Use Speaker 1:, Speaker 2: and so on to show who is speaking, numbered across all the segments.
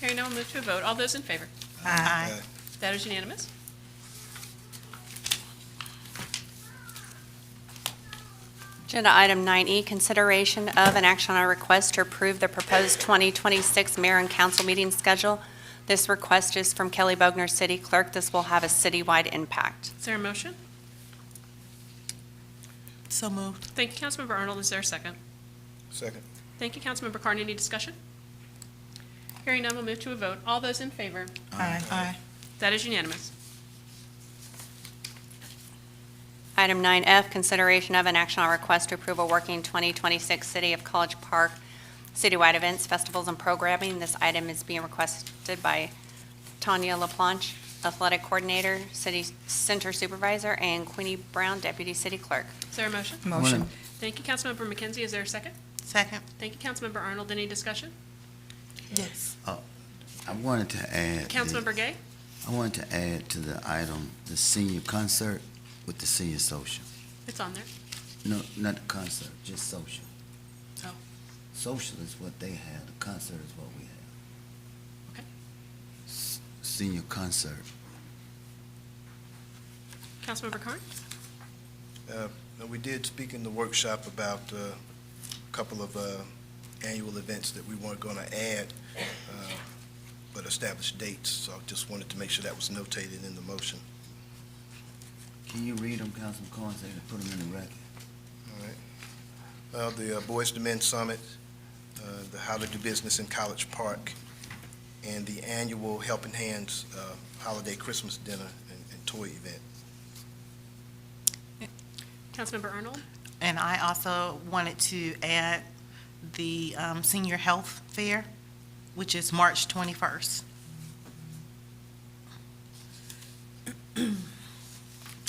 Speaker 1: Hearing none, we'll move to a vote. All those in favor?
Speaker 2: Aye.
Speaker 1: That is unanimous.
Speaker 3: Agenda item 9E, consideration of an action on a request to approve the proposed 2026 mayor and council meeting schedule. This request is from Kelly Bogner, city clerk. This will have a citywide impact.
Speaker 1: Is there a motion?
Speaker 2: So moved.
Speaker 1: Thank you, Councilmember Arnold. Is there a second?
Speaker 4: Second.
Speaker 1: Thank you, Councilmember Carney. Any discussion? Hearing none, we'll move to a vote. All those in favor?
Speaker 2: Aye. Aye.
Speaker 1: That is unanimous.
Speaker 3: Item 9F, consideration of an action on a request to approve a working 2026 City of College Park citywide events, festivals, and programming. This item is being requested by Tanya LaPlanche, athletic coordinator, city center supervisor, and Queenie Brown, deputy city clerk.
Speaker 1: Is there a motion?
Speaker 2: Motion.
Speaker 1: Thank you, Councilmember McKenzie. Is there a second?
Speaker 2: Second.
Speaker 1: Thank you, Councilmember Arnold. Any discussion?
Speaker 2: Yes.
Speaker 5: I wanted to add.
Speaker 1: Councilmember Gay?
Speaker 5: I wanted to add to the item, the senior concert with the senior social.
Speaker 1: It's on there.
Speaker 5: No, not the concert, just social.
Speaker 1: Oh.
Speaker 5: Social is what they have, the concert is what we have.
Speaker 1: Okay.
Speaker 5: S- Senior concert.
Speaker 1: Councilmember Carney?
Speaker 4: Uh, now, We did speak in the workshop about uh, a couple of uh, annual events that we weren't going to add, uh, but established dates, so I just wanted to make sure that was notated in the motion.
Speaker 5: Can you read them, Councilman Cohen, so they can put them in the record?
Speaker 4: Uh, The uh, Boys to Men Summit, uh, the How to Do Business in College Park, and the annual Helping Hands uh, Holiday Christmas Dinner and and Toy Event.
Speaker 1: Councilmember Arnold?
Speaker 2: And I also wanted to add the um, senior health fair, which is March 21st.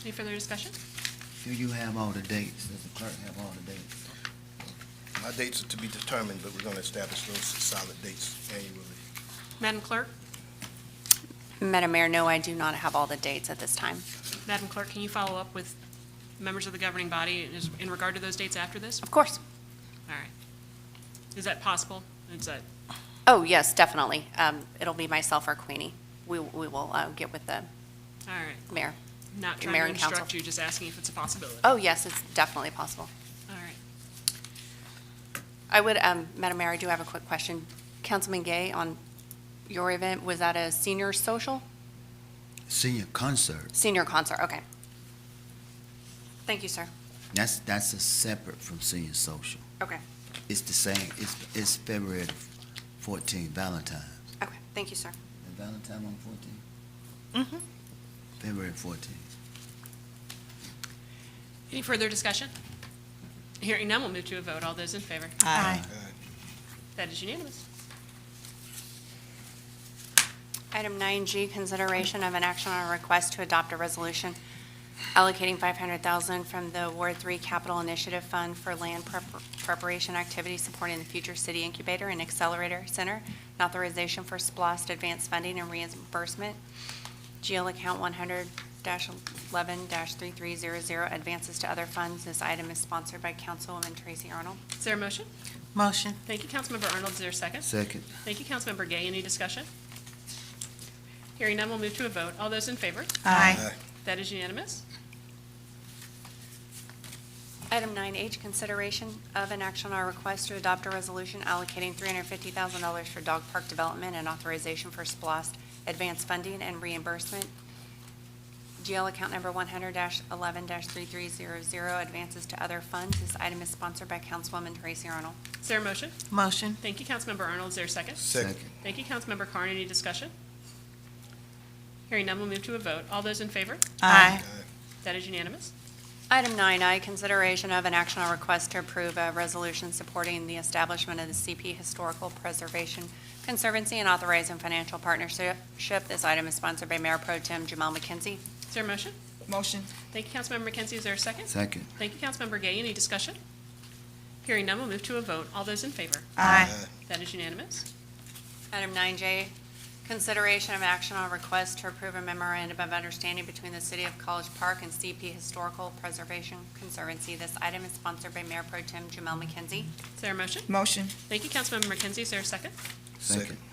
Speaker 1: Any further discussion?
Speaker 5: Do you have all the dates? Does the clerk have all the dates?
Speaker 4: My dates are to be determined, but we're going to establish those solid dates annually.
Speaker 1: Madam Clerk?
Speaker 3: Madam Mayor, no, I do not have all the dates at this time.
Speaker 1: Madam Clerk, can you follow up with members of the governing body in- in regard to those dates after this?
Speaker 3: Of course.
Speaker 1: All right. Is that possible? Is that,
Speaker 3: Oh, yes, definitely. Um, It'll be myself or Queenie. We we will uh, get with the
Speaker 1: all right.
Speaker 3: mayor.
Speaker 1: Not trying
Speaker 3: Mayor
Speaker 1: to
Speaker 3: and council.
Speaker 1: instruct you, just asking if it's a possibility. All
Speaker 3: Oh, yes, it's definitely possible.
Speaker 1: right.
Speaker 3: I would, um, Madam Mayor, I do have a quick question. Councilman Gay, on your event, was that a senior social?
Speaker 5: Senior concert,
Speaker 3: Senior concert, okay. Thank you, sir.
Speaker 5: that's, that's a separate from senior social.
Speaker 3: Okay,
Speaker 5: It's the same, it's, it's February fourteenth, Valentine.
Speaker 3: okay, thank you, sir.
Speaker 5: Is Valentine on fourteen?
Speaker 2: Mhm.
Speaker 5: February fourteenth.
Speaker 1: Any further discussion? Hearing none, we'll move to a vote. All those in favor?
Speaker 2: Aye.
Speaker 1: That is unanimous.
Speaker 3: Item 9G, consideration of an action on a request to adopt a resolution allocating 500000 from the Ward 3 Capital Initiative Fund for land prep- preparation activities supporting the future city incubator and accelerator center, and authorization for splost advanced funding and reimbursement. GL account 100-11-3300, advances to other funds. This item is sponsored by Councilwoman Tracy Arnold.
Speaker 1: Is there a motion?
Speaker 2: Motion.
Speaker 1: Thank you, Councilmember Arnold. Is there a second?
Speaker 5: Second.
Speaker 1: Thank you, Councilmember Gay. Any discussion? Hearing none, we'll move to a vote. All those in favor?
Speaker 2: Aye.
Speaker 1: That is unanimous.
Speaker 3: Item 9H, consideration of an action on a request to adopt a resolution allocating $350,000 for dog park development and authorization for splost advance funding and reimbursement. GL account number 100-11-3300, advances to other funds. This item is sponsored by Councilwoman Tracy Arnold.
Speaker 1: Is there a motion?
Speaker 2: Motion.
Speaker 1: Thank you, Councilmember Arnold. Is there a second? Thank you, Councilmember Carn. Any discussion? Hearing none, we'll move to a vote. All those in favor?
Speaker 2: Aye.
Speaker 1: That is unanimous.
Speaker 3: Item 9I, consideration of an action on request to approve a resolution supporting the establishment of the CP Historical Preservation Conservancy and authorizing financial partnership. This item is sponsored by Mayor Pro Tem Jamal McKenzie.
Speaker 1: Is there a motion?
Speaker 2: Motion.
Speaker 1: Thank you, Councilmember McKenzie. Is there a second?
Speaker 5: Second.
Speaker 1: Thank you, Councilmember Gay. Any discussion? Hearing none, we'll move to a vote. All those in favor?
Speaker 2: Aye.
Speaker 1: That is unanimous.
Speaker 3: Item 9J, consideration of action on request to approve a memorandum of understanding between the City of College Park and CP Historical Preservation Conservancy. This item is sponsored by Mayor Pro Tem Jamel McKenzie.
Speaker 1: Is there a motion?
Speaker 2: Motion.
Speaker 1: Thank you, Councilmember McKenzie. Is there a second?
Speaker 5: Second.